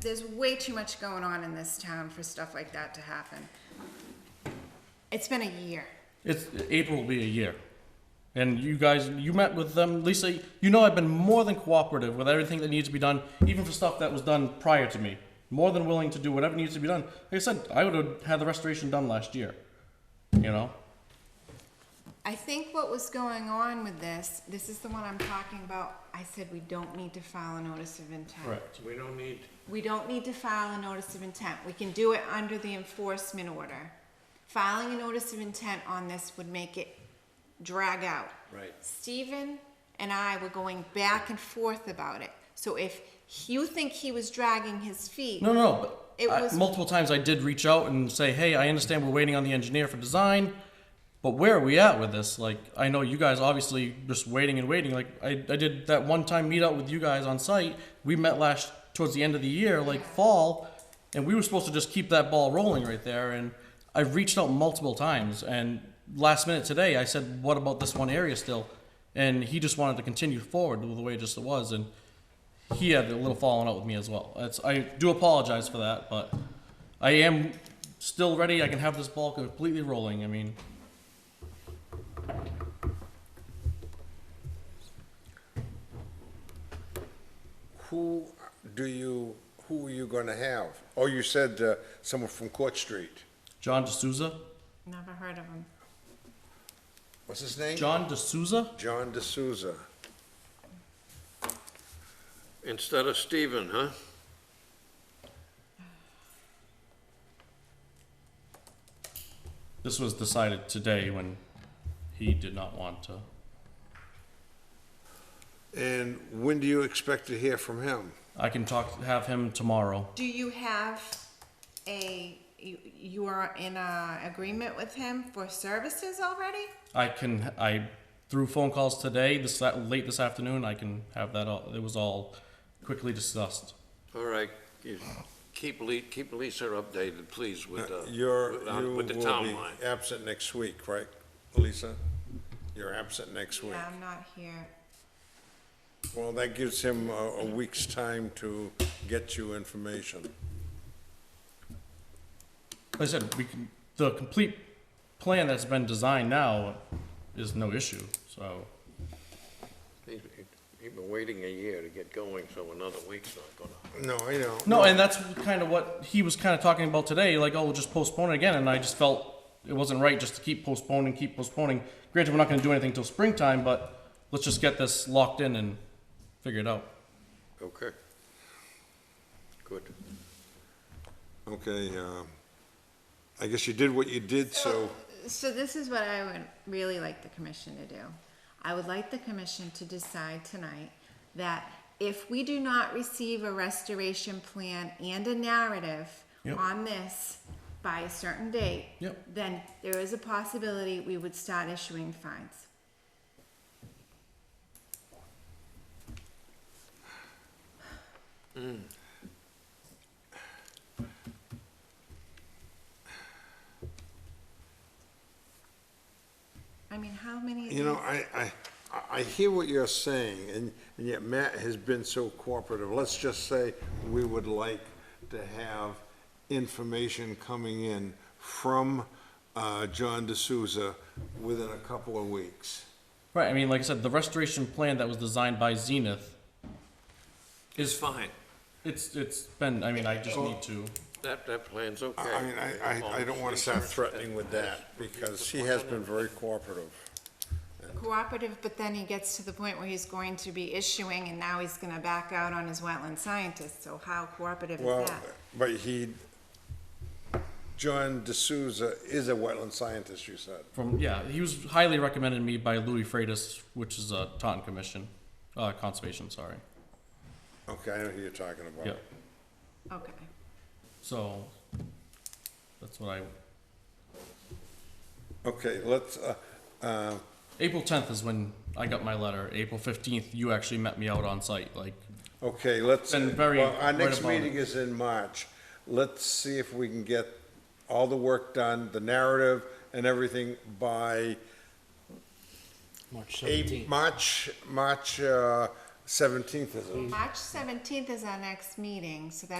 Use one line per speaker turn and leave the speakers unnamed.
there's way too much going on in this town for stuff like that to happen. It's been a year.
It's April will be a year, and you guys, you met with them, Lisa. You know I've been more than cooperative with everything that needs to be done, even for stuff that was done prior to me. More than willing to do whatever needs to be done. Like I said, I would have had the restoration done last year. You know,
I think what was going on with this, this is the one I'm talking about, I said we don't need to file a notice of intent.
correct.
We don't need,
We don't need to file a notice of intent. We can do it under the enforcement order. Filing a notice of intent on this would make it drag out.
Right.
Stephen and I were going back and forth about it. So if you think he was dragging his feet,
No, no, no.
It
But I-
was-
multiple times I did reach out and say, "Hey, I understand we're waiting on the engineer for design, but where are we at with this? Like, I know you guys obviously just waiting and waiting. Like, I, I did that one time meet up with you guys on site. We met last towards the end of the year, like fall, and we were supposed to just keep that ball rolling right there. And I've reached out multiple times, and last minute today I said, "What about this one area still?" And he just wanted to continue forward with the way it just was, and he had a little falling out with me as well. That's, I do apologize for that, but I am still ready. I can have this ball completely rolling. I mean,
who do you, who are you gonna have? Oh, you said uh, someone from Court Street.
John DeSouza.
never heard of him.
What's his name?
John DeSouza?
John D'Souza.
Instead of Stephen, huh?
This was decided today when he did not want to.
And when do you expect to hear from him?
I can talk, have him tomorrow.
Do you have a, you, you are in a agreement with him for services already?
I can, I, through phone calls today, this, that, late this afternoon, I can have that all, it was all quickly discussed.
All right, you keep Li, keep Lisa updated, please, with, uh,
You're,
with-
you
on-
will
with the
be
timeline.
absent next week, right, Lisa? You're absent next week.
Yeah, I'm not here.
Well, that gives him a, a week's time to get you information.
Like I said, we can, the complete plan that's been designed now is no issue, so.
He's he's been waiting a year to get going, so another week's not gonna.
No, I know.
No, and that's kind of what he was kind of talking about today. Like, oh, we'll just postpone it again. And I just felt it wasn't right just to keep postponing, keep postponing. Granted, we're not going to do anything till springtime, but let's just get this locked in and figure it out.
Okay. Good.
Okay, um, I guess you did what you did, so,
So this is what I would really like the commission to do. I would like the commission to decide tonight that if we do not receive a restoration plan and a narrative
Yep.
on this by a certain date,
Yep.
then there is a possibility we would start issuing fines. I mean, how many? of
you know,
these-
I, I, I- I hear what you're saying, and, and yet Matt has been so cooperative. Let's just say we would like to have information coming in from, uh, John D'Souza within a couple of weeks.
Right. I mean, like I said, the restoration plan that was designed by Zenith,
It's fine.
it's it's been. I mean, I just need to.
That, that plan's okay.
I I mean, I, I, I don't wanna start threatening with that, because he has been very cooperative.
cooperative, but then he gets to the point where he's going to be issuing, and now he's gonna back out on his wetland scientist, so how cooperative is
Well,
that?
but he, John D'Souza is a wetland scientist, you said.
From yeah, he was highly recommended me by Louis Freitas, which is a Taunton Commission, uh, conservation. Sorry.
Okay, I know who you're talking about.
Yeah.
Okay,
So that's what I.
Okay, let's, uh, uh,
April 10th is when I got my letter. April 15th, you actually met me out on site. Like,
okay, let's,
Been very
well, our
right
next
about it.
meeting is in March. Let's see if we can get all the work done, the narrative and everything by
March
eight,
seventeenth.
March, March, uh, seventeenth is it?
March seventeenth is our next meeting, so that